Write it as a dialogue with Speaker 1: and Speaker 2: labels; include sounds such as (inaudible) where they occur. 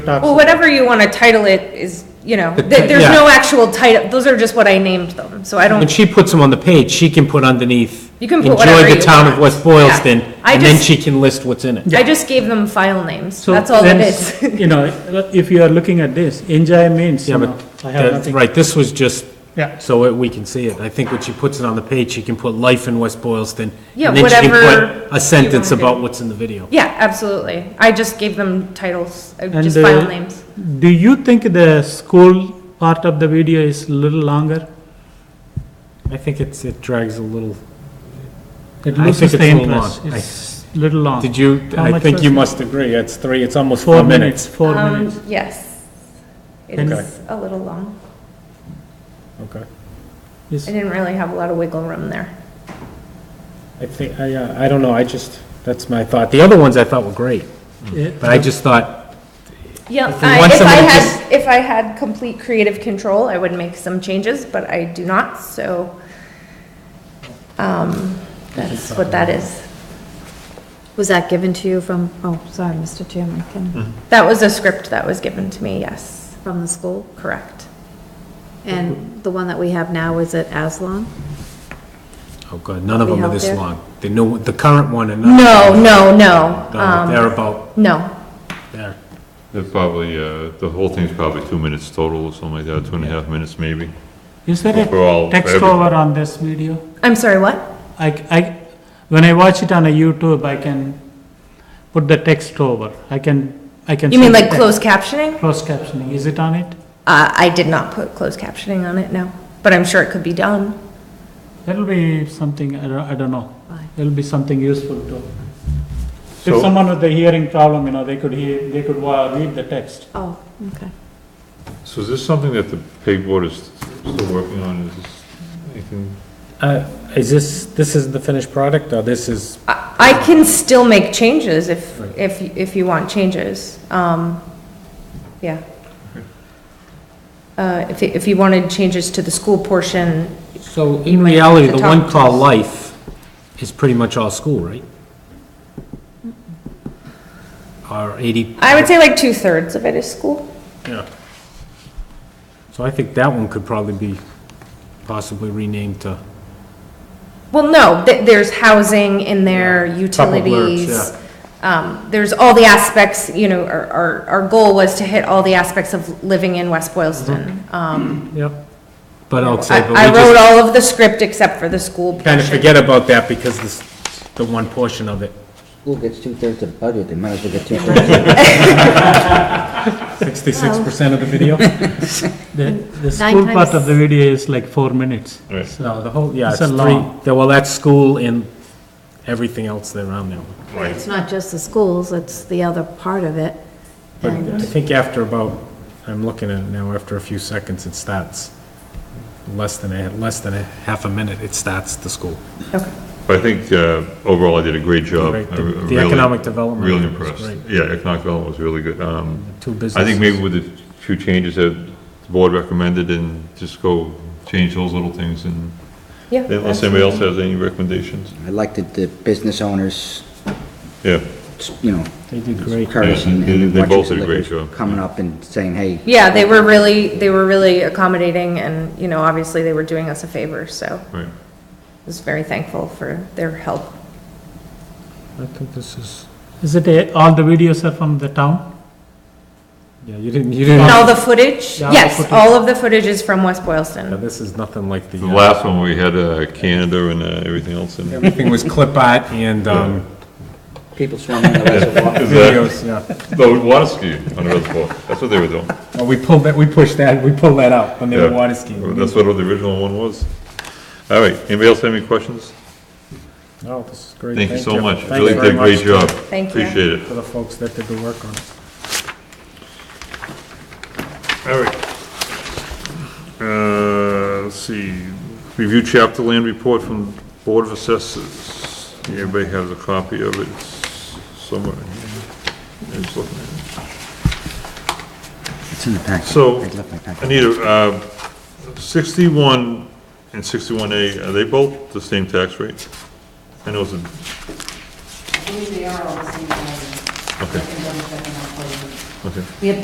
Speaker 1: Well,
Speaker 2: Well, whatever you want to title it is, you know, th- there's
Speaker 1: yeah.
Speaker 2: no actual title, those are just what I named them, so I
Speaker 1: When
Speaker 2: don't,
Speaker 1: she puts them on the page, she can put underneath.
Speaker 2: You can put whatever
Speaker 1: Enjoy
Speaker 2: you
Speaker 1: the town of
Speaker 2: want."
Speaker 1: West Boylston,
Speaker 2: Yeah. I
Speaker 1: and then
Speaker 2: just-
Speaker 1: she can list what's in it.
Speaker 2: I just gave them file names,
Speaker 3: So
Speaker 2: that's all it
Speaker 3: then, (laughs)
Speaker 2: is.
Speaker 3: You know, if you are looking at this, enjoy means,
Speaker 1: Yeah,
Speaker 3: you know,
Speaker 1: but,
Speaker 3: I have
Speaker 1: that's
Speaker 3: nothing.
Speaker 1: right, this was just
Speaker 3: Yeah.
Speaker 1: so it- we can see it. I think when she puts it on the page, she can put life in West Boylston.
Speaker 2: Yeah,
Speaker 1: and then she can
Speaker 2: whatever
Speaker 1: put A sentence
Speaker 2: you wanna do.
Speaker 1: about what's in the video.
Speaker 2: (laughs) Yeah, absolutely, I just gave them titles, uh,
Speaker 3: And,
Speaker 2: just
Speaker 3: uh,
Speaker 2: file names.
Speaker 3: Do you think the school part of the video is little longer?
Speaker 1: I think it's, it drags a little,
Speaker 3: It
Speaker 1: I think
Speaker 3: loses the
Speaker 1: it's a little
Speaker 3: interest.
Speaker 1: long. I-
Speaker 3: It's little long.
Speaker 1: did you,
Speaker 3: How
Speaker 1: I
Speaker 3: much
Speaker 1: think
Speaker 3: was
Speaker 1: you
Speaker 3: it?
Speaker 1: must agree, it's three, it's almost
Speaker 3: Four
Speaker 1: four
Speaker 3: minutes,
Speaker 1: minutes.
Speaker 3: four
Speaker 2: Um,
Speaker 3: minutes.
Speaker 2: Yes,
Speaker 3: And-
Speaker 1: Okay.
Speaker 2: it's a little long,
Speaker 1: Okay.
Speaker 3: Is-
Speaker 2: I didn't really have a lot of wiggle room there.
Speaker 1: I think, I, uh, I don't know, I just, that's my thought. The other ones I thought were great,
Speaker 3: eh,
Speaker 1: but I just thought,
Speaker 2: Yeah,
Speaker 1: If we want
Speaker 2: I- if I
Speaker 1: somebody to
Speaker 2: had, if I had complete creative control, I would make some changes, but I do not, so, um, that's what that is.
Speaker 4: Was that given to you from, oh, sorry, Mr. Chairman, can,
Speaker 2: That was a script that was given to me, yes,
Speaker 4: from the school?
Speaker 2: correct.
Speaker 4: And the one that we have now, is it Aslong?
Speaker 1: Oh, God, none of
Speaker 4: Be
Speaker 1: them are
Speaker 4: out
Speaker 1: this
Speaker 4: there?
Speaker 1: long. The new, the current one and.
Speaker 2: No, no,
Speaker 1: No,
Speaker 2: no, um,
Speaker 1: They're about
Speaker 2: no,
Speaker 1: there.
Speaker 5: They're probably, uh, the whole thing's probably two minutes total or something like that, two and a half minutes maybe.
Speaker 3: Is there
Speaker 5: For all-
Speaker 3: a
Speaker 5: for
Speaker 3: text
Speaker 5: everything.
Speaker 3: over on this video?
Speaker 2: I'm sorry, what?
Speaker 3: I, c- I- when I watch it on a YouTube, I can put the text over. I can, I can.
Speaker 2: You mean
Speaker 3: see the
Speaker 2: like
Speaker 3: text.
Speaker 2: closed captioning?
Speaker 3: Closed captioning, is it on it?
Speaker 2: Uh, I did not put closed captioning on it, no, but I'm sure it could be done.
Speaker 3: That'll be something, I don't, I don't know.
Speaker 4: Fine.
Speaker 3: It'll be something useful too. If
Speaker 5: So-
Speaker 3: someone with a hearing problem, you know, they could hear, they could wa- read the text.
Speaker 4: Oh, okay.
Speaker 5: So is this something that the pay board is still working on? Is this anything?
Speaker 1: Uh, is this, this is the finished product, or this is,
Speaker 2: I, I can still make changes if, if, if you want changes, um, yeah. Uh, if, if you wanted changes to the school portion,
Speaker 1: so in reality,
Speaker 2: have
Speaker 1: the
Speaker 2: to
Speaker 1: one
Speaker 2: talk
Speaker 1: called life is pretty much all school, right? Or eighty,
Speaker 2: I would say like two-thirds of it is school.
Speaker 1: yeah. So I think that one could probably be possibly renamed to,
Speaker 2: Well, no, th- there's housing in there,
Speaker 1: Couple blurbs,
Speaker 2: utilities. Um, there's all the aspects, you know, our, our, our goal was to hit all the aspects of living in West Boylston. Um,
Speaker 1: yep. But I'll
Speaker 2: I
Speaker 1: Mm-hmm. say, but
Speaker 2: I
Speaker 1: we
Speaker 2: wrote
Speaker 1: just
Speaker 2: all of the script except for the school
Speaker 1: kind of
Speaker 2: portion.
Speaker 1: forget about that because this, the one portion of it,
Speaker 6: School gets two-thirds of budget, they might as well get two-thirds.
Speaker 1: sixty-six percent of the (laughs) video.
Speaker 3: The, the school part of
Speaker 4: times-
Speaker 3: the video is like four minutes.
Speaker 5: Right.
Speaker 1: No, the whole, yeah, it's
Speaker 3: It's a
Speaker 1: three,
Speaker 3: long-
Speaker 1: yeah, well, that's school and everything else there on there.
Speaker 4: It's not just the schools, it's the other part of it.
Speaker 1: But
Speaker 4: And-
Speaker 1: I think after about, I'm looking at it now, after a few seconds, it starts, less than a, less than a half a minute, it starts the school.
Speaker 5: But I think uh, overall I did a great job.
Speaker 1: Right, the-
Speaker 5: I re-
Speaker 1: the
Speaker 5: really-
Speaker 1: economic development
Speaker 5: Really
Speaker 1: was
Speaker 5: impressed.
Speaker 1: great.
Speaker 5: Yeah, economic development was really good. Um,
Speaker 1: Two
Speaker 5: I
Speaker 1: businesses.
Speaker 5: think maybe with the few changes that the board recommended and just go change those little things and
Speaker 2: Yeah,
Speaker 5: unless anybody else has any recommendations.
Speaker 6: I like that the business owners,
Speaker 5: Yeah,
Speaker 6: you know,
Speaker 1: They did great.
Speaker 6: encouraging.
Speaker 5: they-
Speaker 6: and
Speaker 5: they both
Speaker 6: watching
Speaker 5: did a great
Speaker 6: liquor
Speaker 5: job.
Speaker 6: Coming up and saying, hey.
Speaker 2: Yeah, they were really, they were really accommodating and, you know, obviously they were doing us a favor, so
Speaker 5: right.
Speaker 2: I was very thankful for their help.
Speaker 1: I think this is,
Speaker 3: Is it, a- all the videos are from the town?
Speaker 1: yeah, you didn't, you didn't,
Speaker 2: And all
Speaker 1: yeah,
Speaker 2: the footage,
Speaker 3: Yeah, all the
Speaker 2: yes,
Speaker 3: footage.
Speaker 2: all of the footage is from West Boylston.
Speaker 1: this is nothing like the,
Speaker 5: The
Speaker 1: uh,
Speaker 5: last one, we had uh, Canada and uh, everything else in it.
Speaker 1: everything was clip art and, um,
Speaker 6: People swimming
Speaker 5: (laughs)
Speaker 6: in the reservoir.
Speaker 1: videos, yeah.
Speaker 5: No, water skiing on the reservoir. That's what they were doing.
Speaker 1: Well, we pulled that, we pushed that, we pulled that out when they were
Speaker 5: Yeah.
Speaker 1: water skiing.
Speaker 5: That's what the original one was. All right, anybody else have any questions?
Speaker 1: Oh, this is great.
Speaker 5: Thank you so much,
Speaker 1: Thank
Speaker 5: really
Speaker 1: you very
Speaker 5: did a great
Speaker 1: much
Speaker 5: job.
Speaker 2: Thank you.
Speaker 5: Appreciate it.
Speaker 1: For the folks that did the work on it.
Speaker 5: All right. Uh, let's see, review chapter land report from Board of Assessors. Everybody has a copy of it It's somewhere. in here. I was looking at it.
Speaker 6: It's in the packet.
Speaker 5: So-
Speaker 6: I left my packet.
Speaker 5: Anita, uh, 61 and 61A, are they both the same tax rate? I know it's a,
Speaker 7: believe they are all the same. value.
Speaker 5: Okay.
Speaker 7: I can double check on that for you.
Speaker 5: okay.